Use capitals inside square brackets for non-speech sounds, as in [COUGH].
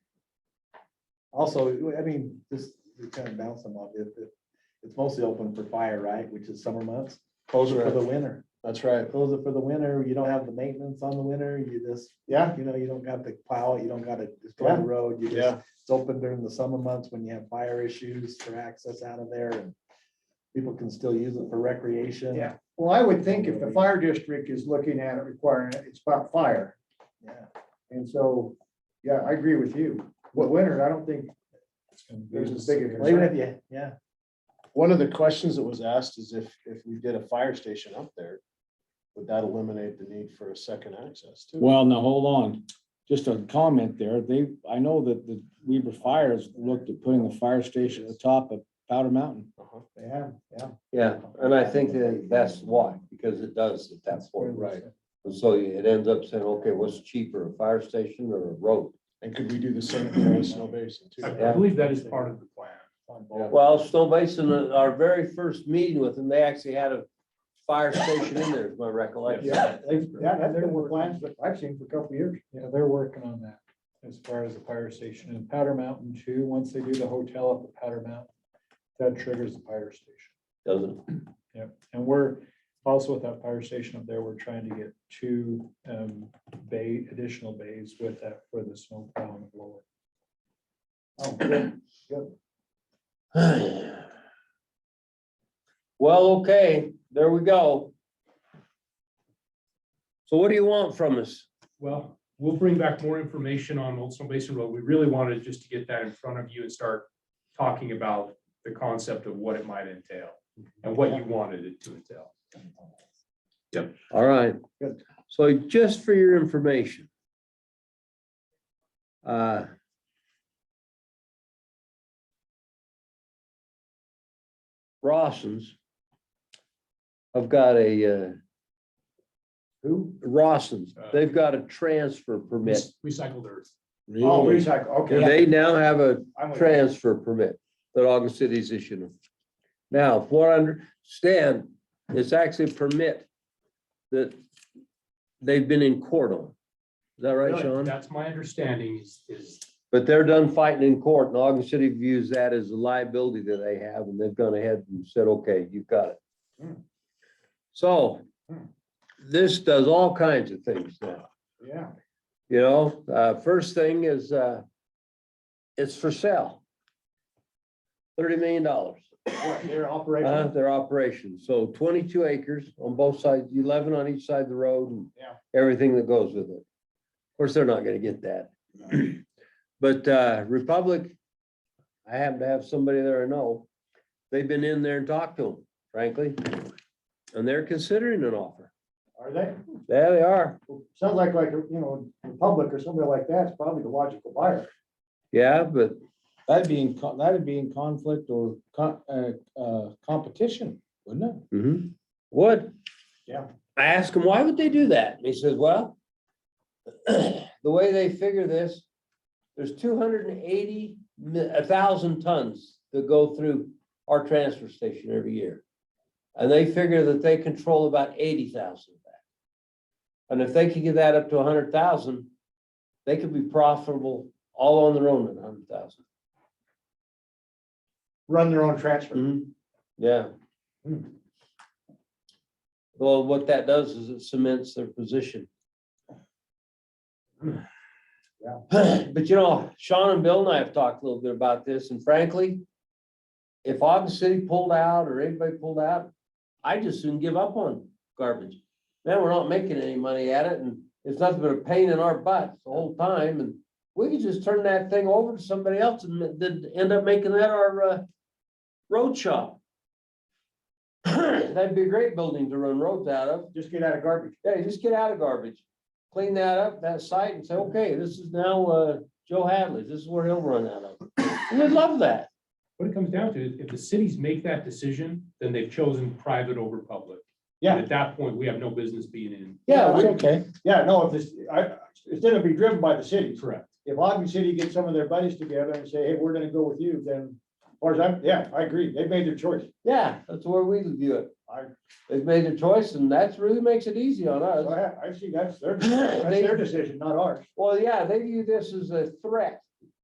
Also, I mean, just to kind of bounce them off, if, if, it's mostly open for fire, right, which is summer months, Those for the are, winter. that's right. Close it for the winter, you don't have the maintenance on the winter, you just, Yeah, you know, you don't got to plow it, you don't gotta destroy Yeah. the road, you just, yeah, it's open during the summer months when you have fire issues for access out of there and people can still use it for recreation. Yeah. Well, I would think if the fire district is looking at it requiring it, it's about fire. Yeah. And so, yeah, I agree with you. But winter, I don't think there's as big a Well, even if concern. you, yeah, One of the questions that was asked is if, if we did a fire station up there, would that eliminate the need for a second access too? Well, now, hold on, just a comment there, they, I know that the Weaver Fire has looked at putting the fire station at the top of Powder Mountain. Uh-huh. yeah, yeah. Yeah, and I think that that's why, because it does at that point, right? And so it ends up saying, okay, what's cheaper, a fire station or a road? And could we do the same thing with Snow Basin too? Yeah. believe that is part of the plan. on both. Well, Snow Basin, uh, our very first meeting with them, they actually had a fire station in there, is my recollection. Yeah, they- yeah, that's been the plans that I've seen for a couple of years. Yeah, they're working on that as far as the fire station and Powder Mountain too. Once they do the hotel up at Powder Mountain, that triggers the fire station. Doesn't, And we're also with that fire station up there, we're trying to get two um bay, additional bays with that for the snow plow and blower. Oh, good. [SIGHS] Well, okay, there we go. So what do you want from us? Well, we'll bring back more information on Old Snow Basin Road. We really wanted just to get that in front of you and start talking about the concept of what it might entail and what you wanted it to entail. All right. Good. So just for your information. uh, Rossins. I've got a, uh, Who? Rossins, they've got a transfer permit. Recycled earth. Oh, recycle, okay. They now have a I'm with you. transfer permit that August City's issued them. Now, from what I understand, it's actually a permit that they've been in court on. Is that right, Sean? That's my understanding is, is But they're done fighting in court and Ogden City views that as a liability that they have and they've gone ahead and said, okay, you've got it. Hmm. So Hmm. this does all kinds of things now, Yeah. you know? Uh, first thing is, uh, it's for sale. Thirty million dollars. What, Their Uh, operation. their operation. So twenty-two acres on both sides, eleven on each side of the road and Yeah. everything that goes with it. Of course, they're not gonna get that. [CLEARS THROAT] But, uh, Republic, I happen to have somebody there I know. They've been in there and talked to them, frankly. And they're considering an offer. Are they? There they are. Well, Sounds like, like, you know, Republic or somebody like that's probably the logical buyer. Yeah, but That'd be in, co- that'd be in conflict or co- uh, uh, competition, wouldn't it? mhm, would. Yeah. I asked him, why would they do that? And he says, well, [CLEARS THROAT] the way they figure this, there's two hundred and eighty, a thousand tons that go through our transfer station every year. And they figure that they control about eighty thousand of that. And if they could get that up to hundred thousand, they could be profitable all on their own at hundred thousand. Run their own transfer. Mm-hmm. Yeah. Hmm. Well, what that does is it cements their position. [CLEARS THROAT] But you know, Sean and Bill and I have talked a little bit about this, and frankly, if Ogden City pulled out or anybody pulled out, I just soon give up on garbage. Man, we're not making any money at it, and it's nothing but a pain in our butts the whole time, and we could just turn that thing over to somebody else and then end up making that our uh, road shop. That'd be a great building to run roads out of. Just get out of garbage. Yeah, you just get out of garbage, clean that up, that site and say, okay, this is now, uh, Joe Hadley's, this is where he'll run out of. And We'd love that. what it comes down to. is If the cities make that decision, then they've chosen private over public. Yeah. And At that point, we have no business being in. Yeah, we- Okay, yeah, no, if this, I, it's gonna be driven by the city. Correct. If Ogden City gets some of their buddies together and say, hey, we're gonna go with you, then, or as I'm, yeah, I agree. They made their choice. Yeah, that's where we view it. I- They've made their choice and that's really makes it easy on [LAUGHS] us. So I, I see that's their, that's their decision, not ours. Well, yeah, they view this as a threat